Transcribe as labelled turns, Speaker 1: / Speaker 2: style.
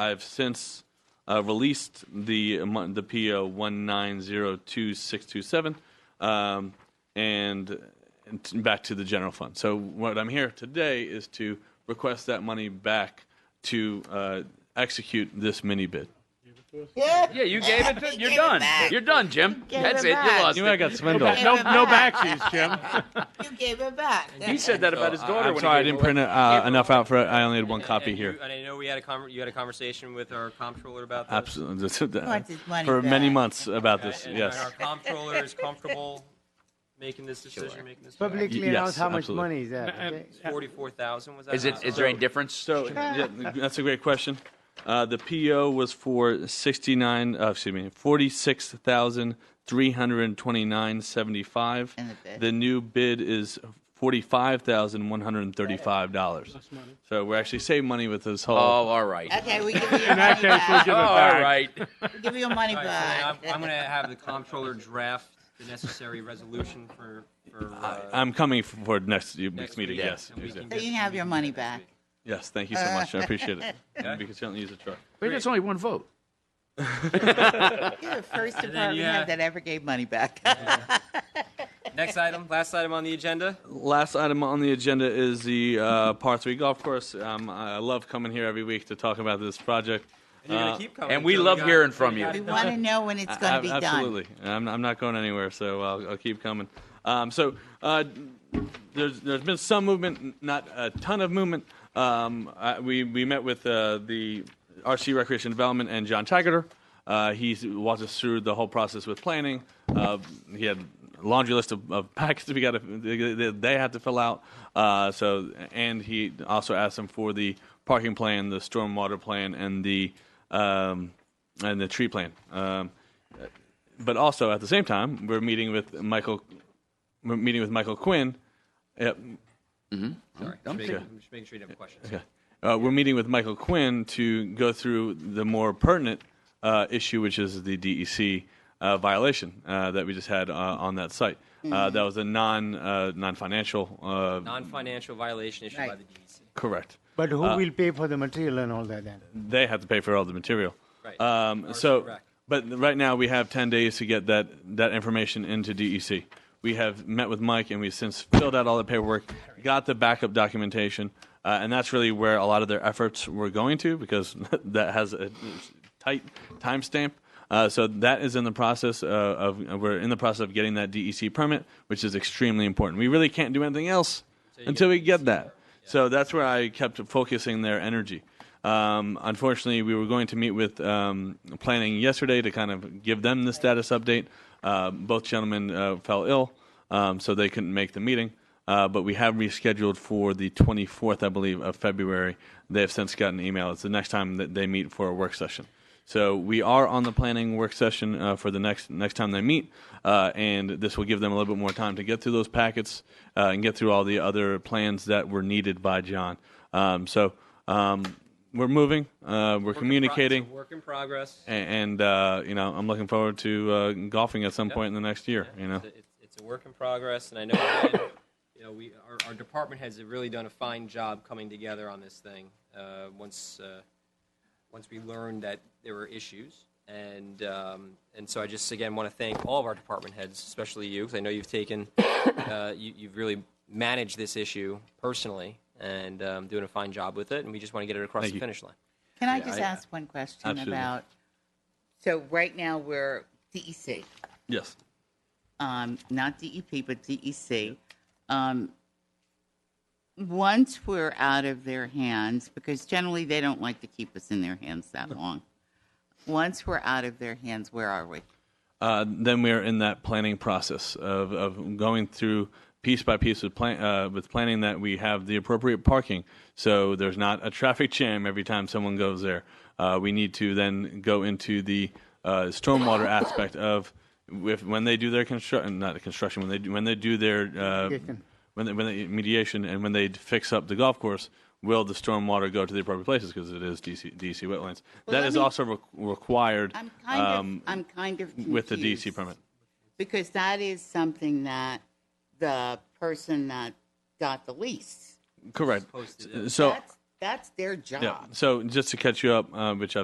Speaker 1: I've since uh, released the amount- the PO one nine zero two six two seven, um, and and t- back to the general fund. So what I'm here today is to request that money back to uh, execute this mini bid.
Speaker 2: Yeah.
Speaker 3: Yeah, you gave it to.
Speaker 2: He
Speaker 3: You're
Speaker 2: gave it
Speaker 3: done.
Speaker 2: back.
Speaker 3: You're done, Jim.
Speaker 2: gave
Speaker 3: That's
Speaker 2: it
Speaker 3: it. You
Speaker 2: back.
Speaker 3: lost
Speaker 1: Anyway, I
Speaker 3: it.
Speaker 1: got swindled.
Speaker 4: No, no backsies, Jim.
Speaker 2: You gave it back.
Speaker 3: He said that about his daughter.
Speaker 1: I'm
Speaker 3: when
Speaker 1: sorry, I
Speaker 3: he gave
Speaker 1: didn't
Speaker 3: it away.
Speaker 1: print uh, enough out for it. I only had one copy
Speaker 5: and
Speaker 1: here.
Speaker 5: You, and I know we had a conver- you had a conversation with our comptroller about this.
Speaker 1: Absolutely,
Speaker 2: wants his money
Speaker 1: for many
Speaker 2: back.
Speaker 1: months about
Speaker 5: And-
Speaker 1: this.
Speaker 5: and
Speaker 1: Yes,
Speaker 5: our comptroller is comfortable making this decision, making this.
Speaker 6: Publicly
Speaker 1: Y-
Speaker 6: announce
Speaker 1: yes,
Speaker 6: how much
Speaker 1: absolutely.
Speaker 6: money is that.
Speaker 4: And-
Speaker 6: okay?
Speaker 5: Forty-four thousand was that?
Speaker 3: Is it? Is there any difference?
Speaker 1: so yeah, that's a great question. Uh, the PO was for sixty-nine. Uh, excuse me, forty-six thousand three hundred twenty-nine seventy-five.
Speaker 2: And the bid.
Speaker 1: The new bid is forty-five thousand one hundred thirty-five dollars. So we're actually saving money with this whole.
Speaker 3: oh, all right.
Speaker 2: Okay, we give you your
Speaker 4: In that
Speaker 2: money
Speaker 4: case, we'll
Speaker 2: back.
Speaker 4: give
Speaker 3: Oh,
Speaker 4: it
Speaker 3: all
Speaker 4: back.
Speaker 3: right.
Speaker 2: We give you your money
Speaker 5: All right, so
Speaker 2: back.
Speaker 5: I'm, I'm going to have the comptroller draft the necessary resolution for. for uh,
Speaker 1: I'm coming for next week's
Speaker 5: next
Speaker 1: meeting.
Speaker 5: week,
Speaker 1: Yes,
Speaker 5: and we can
Speaker 1: exactly.
Speaker 2: So
Speaker 5: get-
Speaker 2: you can have your money back.
Speaker 1: yes. Thank you so much. I appreciate it. And We can certainly use a truck.
Speaker 3: Wait, that's only one vote.
Speaker 2: You're the first
Speaker 5: then,
Speaker 2: department
Speaker 5: yeah.
Speaker 2: head that ever gave money back.
Speaker 5: Next item, last item on the agenda.
Speaker 1: last item on the agenda is the uh, par three golf course. Um, I love coming here every week to talk about this project.
Speaker 5: And you're
Speaker 1: Uh,
Speaker 5: going to keep coming.
Speaker 3: and we
Speaker 5: until
Speaker 3: love
Speaker 5: got-
Speaker 3: hearing
Speaker 5: until
Speaker 3: from
Speaker 5: we
Speaker 3: you.
Speaker 5: got
Speaker 2: We
Speaker 5: it
Speaker 2: want to know when it's going to
Speaker 1: Ab-
Speaker 2: be done.
Speaker 1: Absolutely. I'm, I'm not going anywhere, so I'll, I'll keep coming. Um, so uh, there's, there's been some movement, n- not a ton of movement. Um, I, we, we met with uh, the RC Recreation Development and John Taggart. Uh, he walked us through the whole process with planning. Uh, he had a laundry list of, of packages we got to, they, they- they had to fill out. Uh, so and he also asked them for the parking plan, the stormwater plan, and the um, and the tree plan. Um, but also at the same time, we're meeting with Michael. We're meeting with Michael Quinn. eh, Yep.
Speaker 5: Sorry, I'm just making- I'm just making sure you didn't have questions.
Speaker 1: okay. Uh, we're meeting with Michael Quinn to go through the more pertinent uh, issue, which is the DEC uh, violation uh, that we just had uh, on that site. Uh, that was a non uh, non financial. Uh,
Speaker 5: Non-financial violation issued by
Speaker 2: Right.
Speaker 5: the E DEC.
Speaker 1: correct.
Speaker 6: But who will pay for the material and all that then?
Speaker 1: They have to pay for all the material.
Speaker 5: Right.
Speaker 1: Um,
Speaker 5: Or
Speaker 1: so,
Speaker 5: correct.
Speaker 1: but right now we have 10 days to get that, that information into DEC. We have met with Mike and we've since filled out all the paperwork, got the backup documentation, uh, and that's really where a lot of their efforts were going to because that has a tight timestamp. Uh, so that is in the process uh, of we're in the process of getting that DEC permit, which is extremely important. We really can't do anything else until we get that. So that's where I kept focusing their energy. Um, unfortunately, we were going to meet with um, planning yesterday to kind of give them the status update. Uh, both gentlemen uh, fell ill, um, so they couldn't make the meeting. Uh, but we have rescheduled for the 24th, I believe, of February. They have since gotten an email. It's the next time that they meet for a work session. So we are on the planning work session uh, for the next next time they meet, uh, and this will give them a little bit more time to get through those packets uh, and get through all the other plans that were needed by John. Um, so um, we're moving, uh, we're
Speaker 5: Work in pro- it's a
Speaker 1: communicating,
Speaker 5: Work in progress.
Speaker 1: a- and uh, you know I'm looking forward to uh, golfing at some point in the next year. You know,
Speaker 5: It's a- it's- it's a work in progress, and I know, again, you know, we, our, our department has really done a fine job coming together on this thing. Uh, once, uh, once we learned that there were issues, and um, and so I just again want to thank all of our department heads, especially you, because I know you've taken, uh, you, you've really managed this issue personally and um, doing a fine job with it, and we just want to get it across
Speaker 1: Thank
Speaker 5: the
Speaker 1: you.
Speaker 5: finish line.
Speaker 2: Can I just ask one question
Speaker 1: Absolutely.
Speaker 2: about? So right now we're E DEC,
Speaker 1: yes,
Speaker 2: um, not DEP, but DEC. Um, once we're out of their hands, because generally they don't like to keep us in their hands that long. Once we're out of their hands, where are we?
Speaker 1: uh, then we are in that planning process of, of going through piece by piece with, plan, uh, with planning that we have the appropriate parking so there's not a traffic jam every time someone goes there. Uh, we need to then go into the uh, stormwater aspect of if, when they do their construction, not the construction, when they do, when they do their uh, when they, when they mediation and when they fix up the golf course. Will the stormwater go to the appropriate places because it is DC, DC wetlands? that
Speaker 2: let
Speaker 1: is
Speaker 2: me-
Speaker 1: also re- required
Speaker 2: I'm kind
Speaker 1: um,
Speaker 2: of I'm kind of
Speaker 1: with the DC
Speaker 2: confused.
Speaker 1: permit.
Speaker 2: Because that is something that the person that got the lease.
Speaker 1: Correct.
Speaker 5: Posted it.
Speaker 1: So
Speaker 2: That's That's their job.
Speaker 1: Yeah. So just to catch you up, uh, which I've